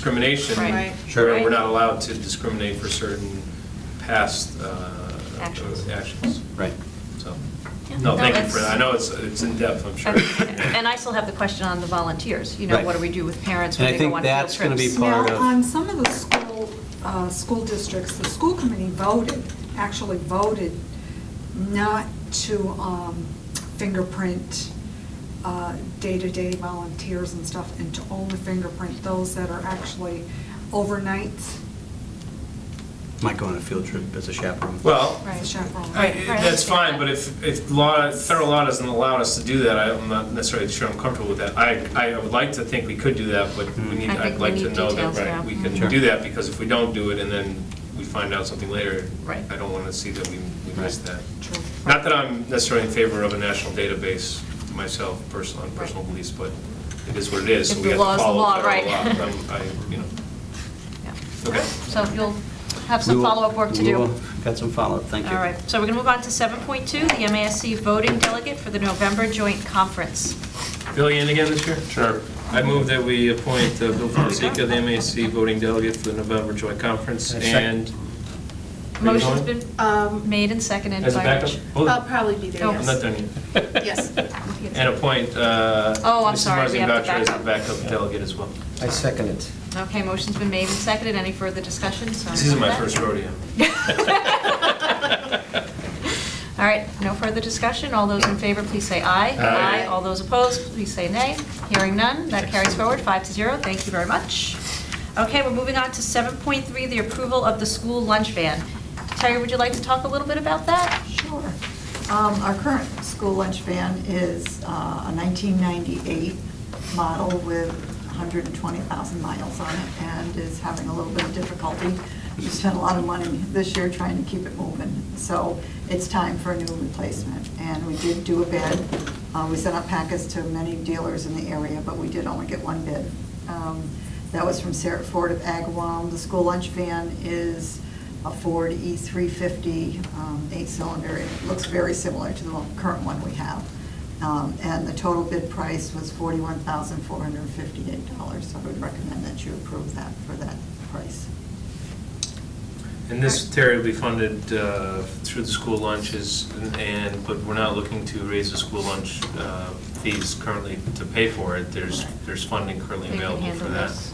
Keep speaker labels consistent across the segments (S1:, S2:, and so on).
S1: discrimination.
S2: Right.
S3: Sure.
S1: Where we're not allowed to discriminate for certain past uh,
S2: Actions.
S1: actions.
S3: Right.
S1: So,
S2: Yeah.
S1: no,
S2: No,
S1: thank you
S2: that's-
S1: for that. I know it's, it's in depth, I'm sure.
S2: And I still have the question on the volunteers, you know,
S3: Right.
S2: what do we do with parents
S3: And
S2: when
S3: I
S2: they go
S3: think
S2: on field
S3: that's gonna be
S2: trips?
S3: part-
S4: Now,
S3: of-
S4: on some of the school, uh, school districts, the school committee voted, actually voted not to um, fingerprint uh, day-to-day volunteers and stuff, and to only fingerprint those that are actually overnights.
S3: Might go on a field trip as a chaperone.
S1: Well,
S4: as a chaperone.
S1: I-
S2: Right, right.
S1: that's fine, but if, if law, federal law doesn't allow us to do that, I'm not necessarily sure I'm comfortable with that. I, I would like to think we could do that, but we need,
S2: I think
S1: I'd
S2: we
S1: like to
S2: need
S1: know
S2: details, yeah.
S1: that we
S3: Sure.
S1: can do that, because if we don't do it and then we find out something later,
S2: Right.
S1: I don't want to see that we we missed that.
S4: True.
S1: Not that I'm necessarily in favor of a national database myself, personal, on personal beliefs, but it is what it is, so
S2: If
S1: we have
S2: the
S1: to
S2: law is the
S1: follow
S2: law,
S1: federal
S2: right.
S1: law. I'm- I, you know,
S2: Yeah.
S1: okay.
S2: So you'll have
S3: We
S2: some
S3: will-
S2: follow-up work to
S3: we
S2: do.
S3: will- Got some follow-up, thank you.
S2: All right, so we're going to move on to 7.2, the MASC voting delegate for the November joint conference.
S1: Billy in again this year? Sure. I move that we appoint uh, Bill Fonseca, the MAC voting delegate for the November joint conference,
S3: I second.
S1: and...
S2: Motion's been
S5: Um,
S2: made and seconded
S1: As a
S2: by
S1: backup?
S2: Rich.
S1: Hold
S5: I'll
S1: on,
S5: probably be there,
S2: Oh.
S1: I'm not
S5: yes.
S1: done yet.
S5: Yes.
S1: And appoint uh,
S2: Oh, I'm
S1: Mrs.
S2: sorry,
S1: Marzine
S2: we have to
S1: Boucher as the
S2: back
S1: backup delegate as well.
S6: I second it.
S2: Okay, motion's been made and seconded. Any further discussion? Sorry
S1: This is
S2: about
S1: my
S2: that.
S1: first rodeo.
S2: All right, no further discussion. All those in favor, please say aye.
S1: Aye.
S2: All those opposed, please say nay. Hearing none, that carries forward, five to zero. Thank you very much. Okay, we're moving on to 7.3, the approval of the school lunch van. Terry, would you like to talk a little bit about that?
S7: Sure. Um, Our current school lunch van is uh, a 1998 model with 120,000 miles on it and is having a little bit of difficulty. We spent a lot of money this year trying to keep it moving, so it's time for a new replacement. And we did do a bid. Uh, We sent out packets to many dealers in the area, but we did only get one bid. Um, That was from Sarah Ford of Agawam. The school lunch van is a Ford E350 um, eight-cylinder. It looks very similar to the one- current one we have. Um, And the total bid price was $41,458, so I would recommend that you approve that for that price.
S1: And this, Terry, will be funded uh, through the school lunches, and, but we're not looking to raise the school lunch uh, fees currently to pay for it. There's, there's funding currently
S2: They can
S1: available for
S2: handle
S1: that.
S2: this.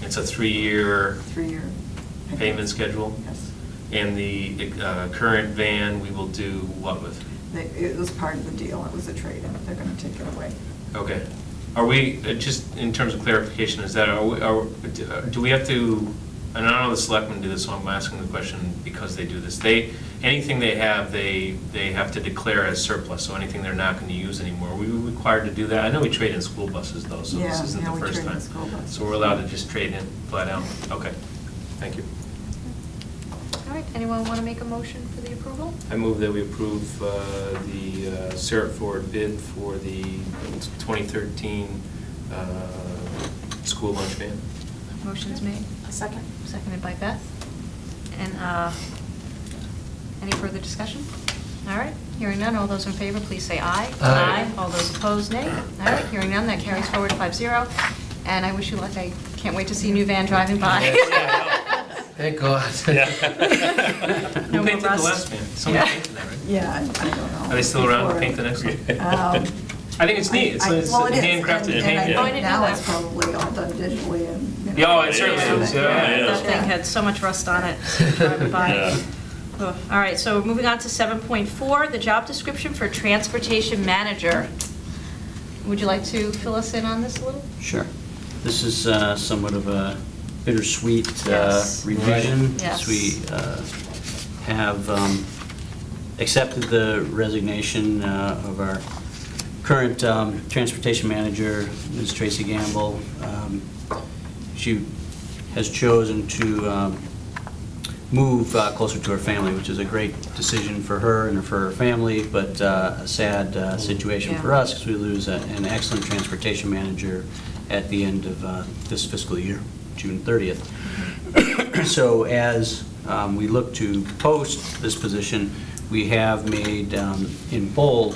S1: It's a three-year
S7: Three-year.
S1: payment schedule,
S7: Yes.
S1: and the uh, current van, we will do what with?
S7: They- It was part of the deal. It was a trade-in. They're going to take it away.
S1: Okay. Are we, uh, just in terms of clarification, is that, are we, are, do we have to, and I know the selectmen do this, so I'm asking the question because they do this. They, anything they have, they, they have to declare as surplus, so anything they're not gonna use anymore. Are we required to do that? I know we trade in school buses though, so this
S7: Yeah,
S1: isn't
S7: yeah,
S1: the
S7: we
S1: first
S7: trade in
S1: time.
S7: school buses.
S1: So we're allowed to just trade in flat out? Okay. Thank you.
S2: All right, anyone want to make a motion for the approval?
S1: I move that we approve uh, the uh, Sarah Ford bid for the 2013 uh, school lunch van.
S2: Motion's made,
S5: A second?
S2: seconded by Beth. And uh, any further discussion? All right, hearing none, all those in favor, please say aye.
S6: Aye.
S2: All those opposed, nay. All right, hearing none, that carries forward five zero. And I wish you luck, I can't wait to see a new van driving by.
S6: Thank God.
S2: No
S1: Who
S2: more
S1: painted the
S2: rust.
S1: last van? Somebody
S2: Yeah.
S1: painted that, right?
S7: Yeah, I I don't know.
S1: Are they still around to
S7: Before-
S1: paint the next one?
S7: Um,
S1: I think it's neat, it's
S7: I-
S1: it's
S7: well, it is,
S1: handcrafted and
S7: and- and I
S1: painted.
S2: Oh, I didn't
S7: think Now
S2: know
S7: it's
S2: that.
S7: probably all done digitally and. you
S1: Yeah,
S7: know,
S1: oh, it certainly is, yeah,
S2: Yeah,
S1: yeah.
S2: That thing had so much rust on it, driving by.
S8: Yeah.
S2: Ugh. All right, so moving on to 7.4, the job description for transportation manager. Would you like to fill us in on this a little?
S3: Sure. This is uh, somewhat of a bittersweet uh,
S2: Yes.
S3: revision.
S2: Right. Yes.
S3: as We uh, have um, accepted the resignation uh, of our current um, transportation manager, Ms. Tracy Gamble. Um, She has chosen to um, move uh, closer to her family, which is a great decision for her and for her family, but uh, a sad uh, situation for
S2: Yeah.
S3: us because we lose a- an excellent transportation manager at the end of uh, this fiscal year, June 30th. So as um, we look to post this position, we have made um, in bold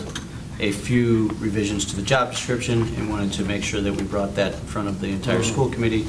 S3: a few revisions to the job description and wanted to make sure that we brought that in front of the entire school committee